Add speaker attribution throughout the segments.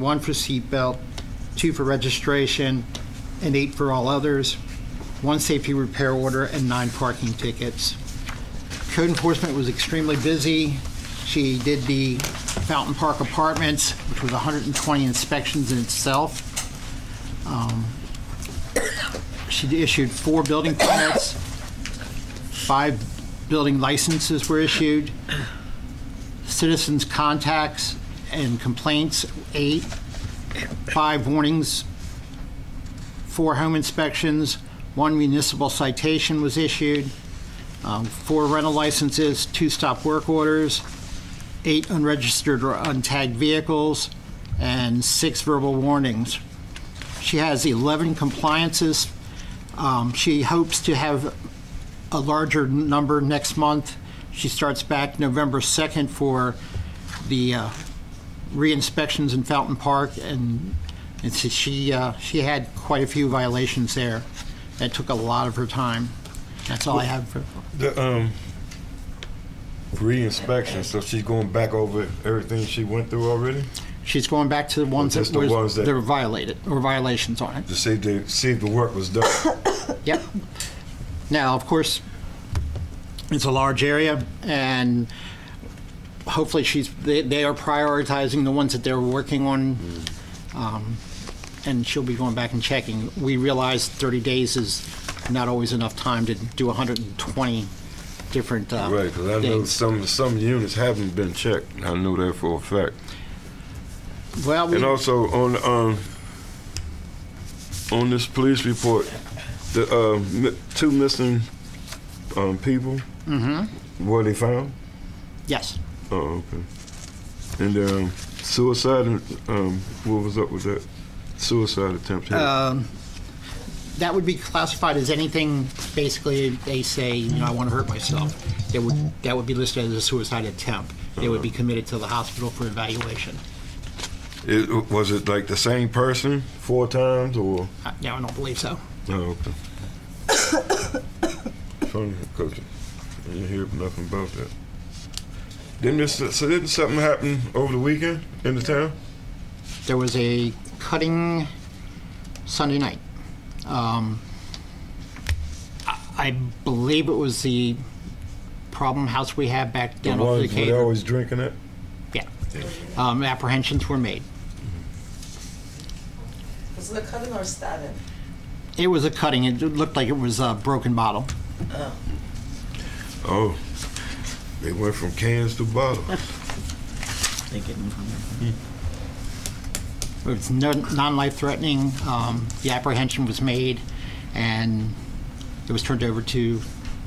Speaker 1: one for seatbelt, two for registration, and eight for all others, one safety repair order, and nine parking tickets. Code enforcement was extremely busy. She did the Fountain Park Apartments, which was 120 inspections in itself. Um, She issued four building permits, five building licenses were issued, citizens' contacts and complaints, eight, five warnings, four home inspections, one municipal citation was issued, um, four rental licenses, two stop work orders, eight unregistered or untagged vehicles, and six verbal warnings. She has 11 compliances. Um, She hopes to have a larger number next month. She starts back November 2nd for the uh, re-inspections in Fountain Park, and and so she, uh, she had quite a few violations there. That took a lot of her time. That's all I have for...
Speaker 2: The um re-inspection, so she's going back over everything she went through already
Speaker 1: She's going back to the ones
Speaker 2: just
Speaker 1: that
Speaker 2: the
Speaker 1: were
Speaker 2: ones that-
Speaker 1: that were violated, or violations on it.
Speaker 2: to see if the see if the work was done.
Speaker 1: Yep. Now, of course, it's a large area, and hopefully she's, they, they are prioritizing the ones that they're working on, um, and she'll be going back and checking. We realize 30 days is not always enough time to do 120 different uh,
Speaker 2: Right, because I know
Speaker 1: things.
Speaker 2: some some units haven't been checked. I know that for a fact.
Speaker 1: Well, we-
Speaker 2: And also on um on this police report, the uh, mi- two missing um, people
Speaker 1: mhm,
Speaker 2: were they found?
Speaker 1: yes.
Speaker 2: Oh, okay. And um, suicide. Um, what was up with that? Suicide attempt. here.
Speaker 1: Um, That would be classified as anything, basically, they say, you know, I want to hurt myself. That would, that would be listed as a suicide attempt. They would be committed to the hospital for evaluation.
Speaker 2: It, was it like the same person four times or?
Speaker 1: Uh, No, I don't believe so.
Speaker 2: No, okay. Funny, cause I didn't hear nothing about that. Didn't this, so didn't something happen over the weekend in the town?
Speaker 1: There was a cutting Sunday night. Um, I I believe it was the problem house we have back down off the
Speaker 2: ones where
Speaker 1: cave.
Speaker 2: they always drinking it?
Speaker 1: Yeah. Um, Apprehensions were made.
Speaker 3: Was it a cutting or a stabbing?
Speaker 1: It was a cutting, it looked like it was a broken bottle.
Speaker 2: Oh, they went from cans to bottles.
Speaker 1: It was Hmm. no, non-life threatening. Um, the apprehension was made, and it was turned over to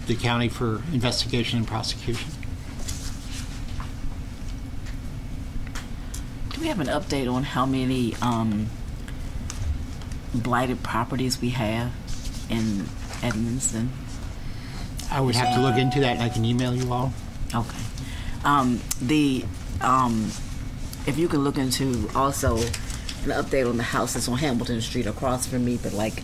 Speaker 1: the county for investigation and prosecution.
Speaker 4: Do we have an update on how many um, blighted properties we have in Edmiston?
Speaker 1: I uh, would have to look into that, and I can email you all.
Speaker 4: Okay. Um, the um, if you can look into also an update on the houses on Hamilton Street across from me, but like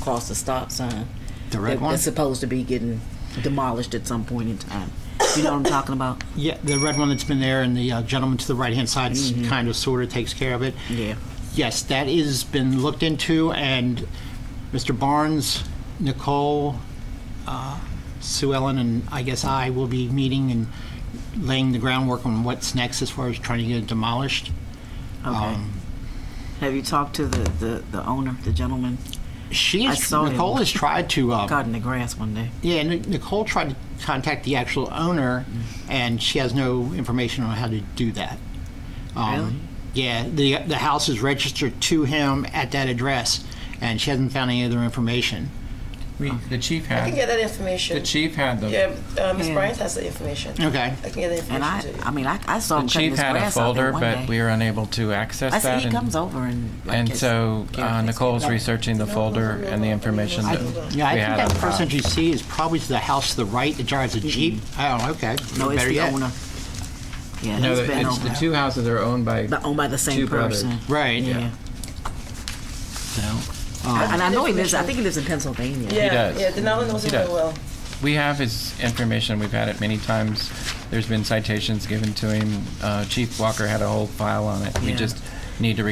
Speaker 4: across the stop sign.
Speaker 1: The red
Speaker 4: that-
Speaker 1: one?
Speaker 4: That's supposed to be getting demolished at some point in time. You know what I'm talking about?
Speaker 1: Yeah, the red one that's been there, and the uh, gentleman to the right-hand side is kind of sort of takes care of it.
Speaker 4: Yeah.
Speaker 1: Yes, that is been looked into, and Mr. Barnes, Nicole, uh, Sue Ellen, and I guess I will be meeting and laying the groundwork on what's next as far as trying to get it demolished.
Speaker 4: Okay. have you talked to the, the, the owner, the gentleman?
Speaker 1: She
Speaker 4: I
Speaker 1: is,
Speaker 4: saw him.
Speaker 1: Nicole has tried to, uh,
Speaker 4: Cutting the grass one day.
Speaker 1: yeah, Ni- Nicole tried to contact the actual owner, and she has no information on how to do that. Um,
Speaker 4: Really?
Speaker 1: Yeah, the, the house is registered to him at that address, and she hasn't found any other information.
Speaker 5: We, the chief
Speaker 3: I can
Speaker 5: had,
Speaker 3: get that information.
Speaker 5: the chief had the,
Speaker 3: Yeah, uh, Ms.
Speaker 4: Yeah.
Speaker 3: Bryant has the information.
Speaker 1: Okay.
Speaker 3: I can get the
Speaker 4: And I,
Speaker 3: information to you.
Speaker 4: I mean, I, I saw
Speaker 5: the
Speaker 4: him cutting
Speaker 5: chief
Speaker 4: his
Speaker 5: had a
Speaker 4: grass out there
Speaker 5: folder,
Speaker 4: one day.
Speaker 5: but we were unable to access
Speaker 4: I
Speaker 5: that.
Speaker 4: said he
Speaker 5: and-
Speaker 4: comes over and. like,
Speaker 5: And
Speaker 4: it's-
Speaker 5: so uh,
Speaker 4: Yeah.
Speaker 5: Nicole's
Speaker 4: Yeah.
Speaker 5: researching the folder and the information
Speaker 1: I,
Speaker 5: that we
Speaker 1: yeah, I
Speaker 5: had. uh,
Speaker 1: think
Speaker 5: on
Speaker 1: that person
Speaker 5: file.
Speaker 1: you see is probably to the house to the right that drives a Jeep.
Speaker 5: Mm-hmm.
Speaker 1: Oh, okay.
Speaker 4: No, it's
Speaker 1: Better
Speaker 4: the
Speaker 1: yet.
Speaker 4: owner. Yeah,
Speaker 5: No,
Speaker 4: he's
Speaker 5: the-
Speaker 4: been
Speaker 5: it's, the
Speaker 4: over.
Speaker 5: two houses are owned by,
Speaker 4: But owned by the same
Speaker 5: two brothers.
Speaker 4: person.
Speaker 1: Right.
Speaker 4: Yeah.
Speaker 1: So,
Speaker 4: I-
Speaker 1: um,
Speaker 4: And I know he lives, I think he lives in Pennsylvania.
Speaker 3: yeah,
Speaker 5: does.
Speaker 3: Yeah, Denali knows
Speaker 5: He
Speaker 3: it very
Speaker 5: does.
Speaker 3: well.
Speaker 5: we have his information, we've had it many times. There's been citations given to him. Uh, Chief Walker had a whole file on it. We
Speaker 4: Yeah.
Speaker 5: just need to